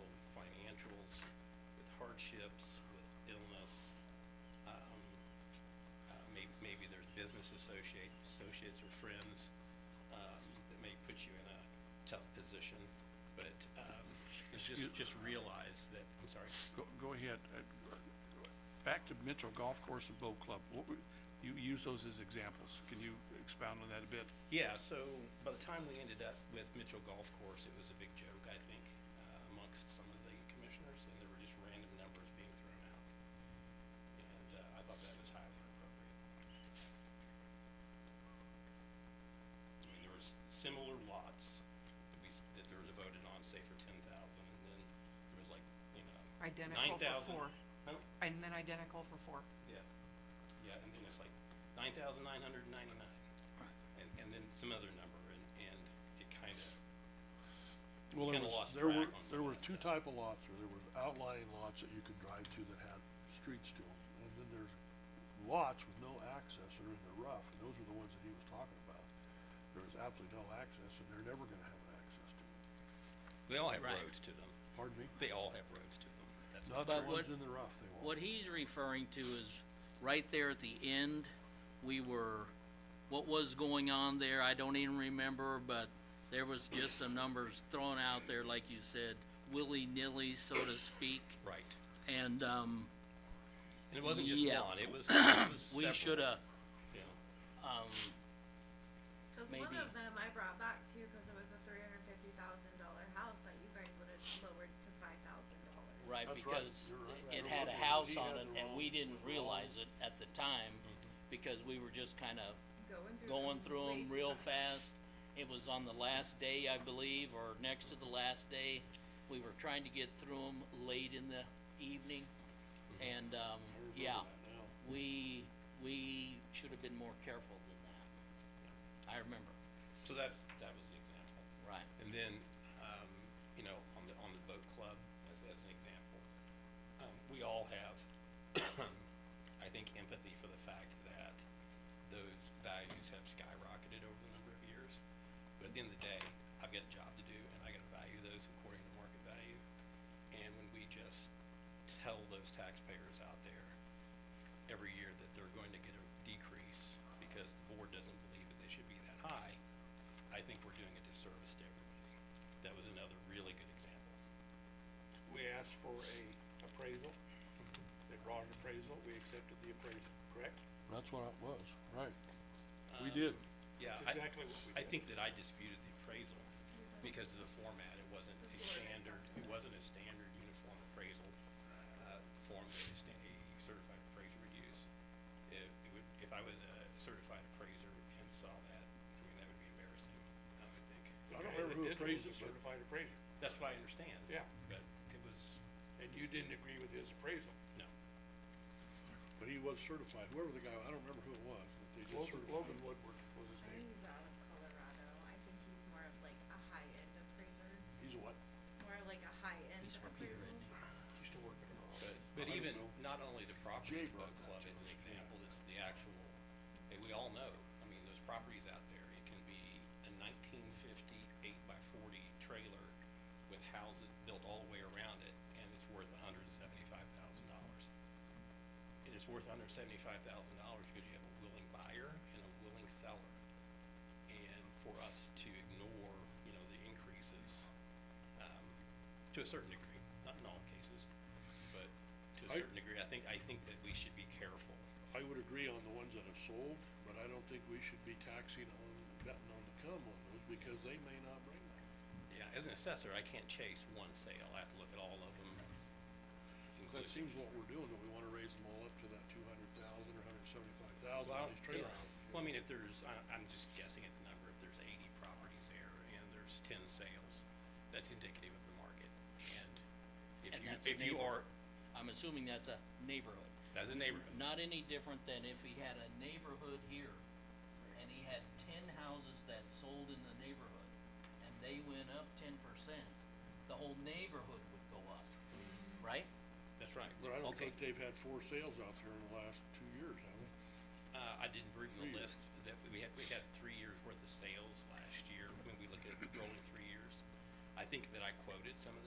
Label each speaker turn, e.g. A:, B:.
A: um, uh, business associate, associates or friends, um, that may put you in a tough position. But, um, it's just,
B: Excuse-
A: just realize that, I'm sorry,
B: Go, go ahead. Uh, Back to Mitchell Golf Course and Boat Club. What were, you use those as examples. Can you expound on that a bit?
A: Yeah, so by the time we ended up with Mitchell Golf Course, it was a big joke, I think, uh, amongst some of the commissioners, and there were just random numbers being thrown out. And, uh, I thought that was highly inappropriate. I mean, there was similar lots that we, s- that there was voted on, say for ten thousand, and then there was like, you know, nine
C: Identical for
A: thousand.
C: four, and then identical for four.
A: Yeah, yeah, and then it's like nine thousand nine hundred and ninety-nine, and, and then some other number, and, and it kind of,
D: Well, there
A: Kinda lost
D: was, there were,
A: track on some
D: there
A: of
D: were
A: that
D: two
A: stuff.
D: type of lots, or there was outlying lots that you could drive to that had streets to them. And then there's lots with no access that are in the rough, and those are the ones that he was talking about. There was absolutely no access, and they're never gonna have an access to them.
A: they all have
E: Right.
A: roads to them.
D: Pardon me?
A: They all have roads to them. That's
D: Not
E: But
D: the ones
E: what-
D: in the rough, they
E: What
D: won't.
E: he's referring to is, right there at the end, we were, what was going on there, I don't even remember, but there was just some numbers thrown out there, like you said, willy-nilly, so to speak,
A: right.
E: and, um,
A: And it wasn't just
E: Yeah.
A: one, it was, it was
E: we
A: several,
E: shoulda,
A: you know.
E: um,
F: Cause one
E: Maybe.
F: of them I brought back too, cause it was a three hundred fifty thousand dollar house that you guys would have lowered to five thousand dollars.
E: right,
D: That's right,
E: because
D: you're right.
E: it
D: You're
E: had
D: looking
E: a
D: at-
E: house
D: he
E: on
D: had
E: it,
D: the
E: and we
D: wrong- Mm-hmm.
E: didn't
D: the wrong-
E: realize it at the time, because we were just kinda
F: Going through.
E: going
F: them
E: through
F: way
E: them
F: too
E: real
F: fast.
E: fast. It was on the last day, I believe, or next to the last day. We were trying to get through them late in the evening. And, um, yeah, we, we should have been more careful than that. I remember,
A: So that's, that was the example.
E: right.
A: And then, um, you know, on the, on the boat club, as, as an example, um, we all have, I think, empathy for the fact that those values have skyrocketed over the number of years. But at the end of the day, I've got a job to do and I gotta value those according to market value. And when we just tell those taxpayers out there every year that they're going to get a decrease because the board doesn't believe that they should be that high, I think we're doing a disservice to everybody. That was another really good example.
G: we asked for a appraisal. They brought an appraisal, we accepted the appraisal, correct?
D: That's what it was, right. We
A: Um,
D: did.
A: Yeah,
G: That's
A: I,
G: exactly what we
A: I
G: did.
A: think that I disputed the appraisal because of the format. It wasn't a standard, it wasn't a standard uniform appraisal, uh, form that a sta- a certified appraiser would use. If, it would, if I was a certified appraiser and saw that, I mean, that would be embarrassing, I would think.
G: The
D: I don't
G: guy
D: remember who
G: that did it was
D: appraised
G: a
D: it, but-
G: Certified appraiser,
A: That's what I understand.
G: Yeah.
A: But it was,
G: and you didn't agree with his appraisal.
A: no,
D: But he was certified, whoever the guy, I don't remember who it was, but they did
G: Logan,
D: certify.
G: Logan Woodward was his
F: I
G: name,
F: think he's out of Colorado, I think he's more of like a high-end appraiser,
G: he's a what,
F: more like a high-end
E: He's from here,
F: appraisal.
E: isn't he?
G: he still working at Ross?
A: But, but
D: I
A: even,
D: don't
A: not only the property
D: Jay brought
A: boat club
D: that to
A: is an
D: us, yeah.
A: example, it's the actual, hey, we all know, I mean, those properties out there, it can be a nineteen fifty eight by forty trailer with houses built all the way around it, and it's worth hundred and seventy-five thousand dollars. And it's worth hundred and seventy-five thousand dollars because you have a willing buyer and a willing seller. And for us to ignore, you know, the increases, um, to a certain degree, not in all cases, but to a
D: I-
A: certain degree, I think, I think that we should be careful.
D: I would agree on the ones that have sold, but I don't think we should be taxing on, betting on the come on those, because they may not bring them.
A: Yeah, as an assessor, I can't chase one sale, I have to look at all of them. inclusive.
D: That seems what we're doing, that we wanna raise them all up to that two hundred thousand or hundred seventy-five thousand
A: Well,
D: on these trailer
A: yeah.
D: houses.
A: Well, I mean, if there's, I, I'm just guessing at the number, if there's eighty properties there and there's ten sales, that's indicative of the market. And if
E: And
A: you,
E: that's a
A: if you are,
E: neighborhood. I'm assuming that's a neighborhood.
A: that's a neighborhood,
E: Not any different than if he had a neighborhood here and he had ten houses that sold in the neighborhood and they went up ten percent, the whole neighborhood would go up, right?
A: that's right.
D: But I don't
A: Okay.
D: think they've had four sales out there in the last two years, have they?
A: Uh, I didn't bring the
D: Three
A: list, that, we had, we had three years worth of sales last year, when we look at rolling three years. I think that I quoted some of the